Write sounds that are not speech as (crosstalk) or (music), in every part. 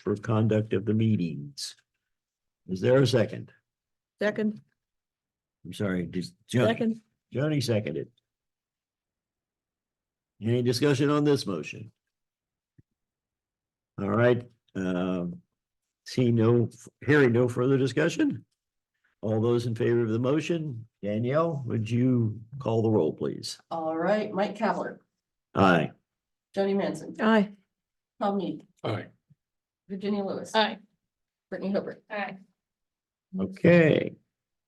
for conduct of the meetings. Is there a second? Second, I'm sorry, just Joni, second, Joni seconded. Any discussion on this motion? All right, um, see no, hearing no further discussion? All those in favor of the motion, Danielle, would you call the roll, please? All right, Mike Kavler, Aye. Joni Manson, aye. Tom Need, Aye. Virginia Lewis. Aye. Brittany Hooper. Aye. Okay,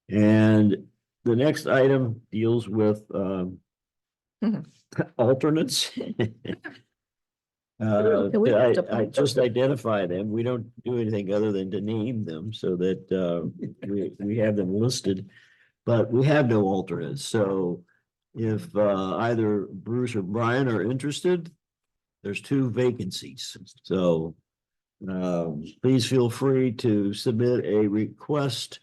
and the next item deals with um. Mhm. (laughs) Alternates. Uh, Can we I, just I appoint just identify them. We don't do anything other than to name them so that uh, we, we have them listed. But we have no alternates, so if uh, either Bruce or Brian are interested, there's two vacancies, so. Um, please feel free to submit a request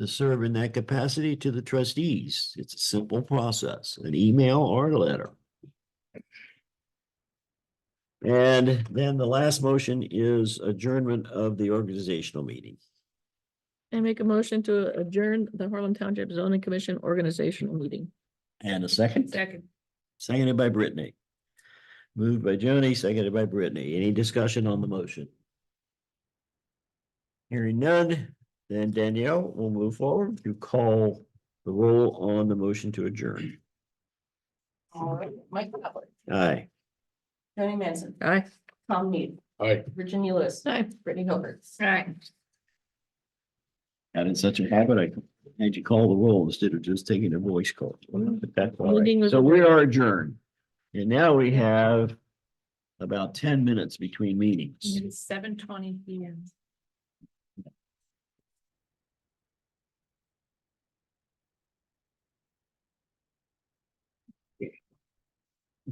to serve in that capacity to the trustees. It's a simple process, an email or a letter. And then the last motion is adjournment of the organizational meeting. I make a motion to adjourn the Harlem Township Zoning Commission organizational meeting. And a second? Second. Seconded by Brittany. Moved by Joni, seconded by Brittany. Any discussion on the motion? Hearing none, then Danielle will move forward to call the roll on the motion to adjourn. All right, Mike Kavler, Aye. Joni Manson, Aye. Tom Need, Aye. Virginia Lewis, Aye. Brittany Hooper. Aye. Got in such a habit, I had you call the roll instead of just taking a voice call. But that's all Meeting right. was So we are adjourned. And now we have about ten minutes between meetings. Seven twenty P M.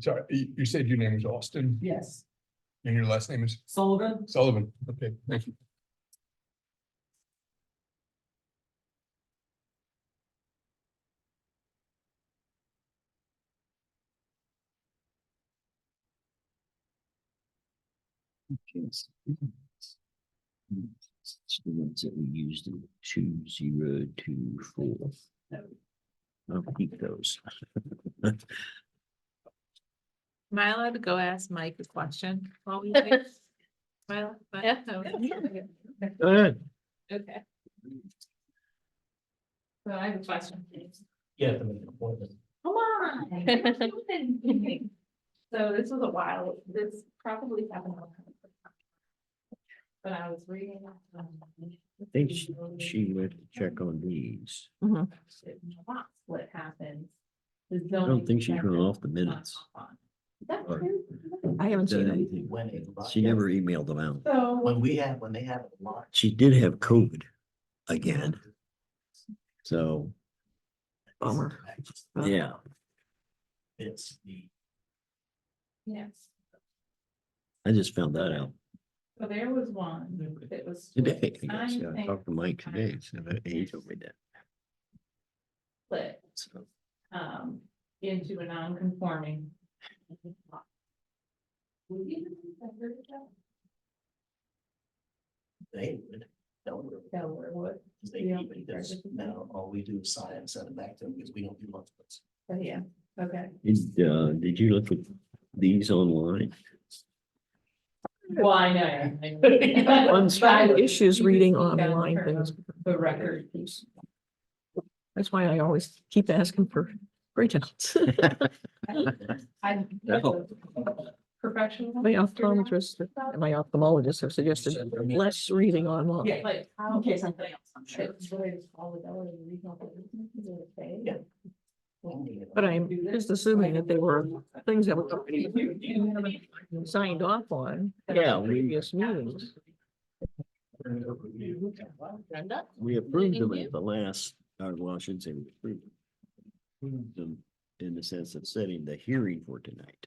Sorry, you, you said your name is Austin Yes. and your last name is Sullivan. Sullivan. Okay, thank you. Yes. It's the ones that we used in two zero two four. I'll keep those. Am I allowed to go ask Mike a question? while we wait? Am I allowed- Yeah. Oh, Yeah. okay. Go ahead. Okay. So I have a question. please. Yeah, to make an appointment. (laughs) Come on. what are you doing? So this was a while, this probably happened. a long time ago. But I was reading. um, I think she- she went to check on these. What happened? I I don't think she's run off the minutes. Or- (laughs) I haven't seen Done (laughs) them. anything. When it was- She never emailed them out. When So, we have, when they have a launch. She did have COVID again, so, Bummer. yeah. It's the. yes, I just found that out so there was one that was. today. split. I I guess. I think talked to Mike today, so that he told me that. Split, so. um, into a non-conforming. Would you consider that They would. That would. Delaware would? Cause they Yeah. even does, now all we do is sign and send it back to them because we don't do much. Oh, yeah, okay. Did, uh, did you look at these online? Well, I know. I- One's but I- issues you can reading see down online for things. The record. That's why I always keep asking for (laughs) breakouts. I. No. Professional. My optometrist, and my ophthalmologist have suggested less reading Yeah, online. like, how, In case something else, I'm sure. it's what it's all the dollar and regional business is what it pays. Yeah. But I'm just assuming that they were things that were (laughs) already signed off on. at Yeah, we- Previous meetings. We approved them at the last, or well, I shouldn't say we approved them. Hmm. Approved them in the sense of setting the hearing for tonight.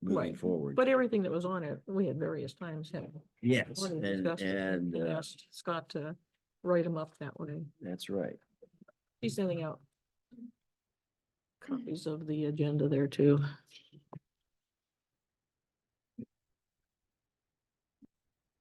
Moving Right, forward. But everything that was on it, we had various times had. Yes, already and, discussed it and, uh, asked Scott to write them up that way. that's right. He's sending out copies of the agenda there too.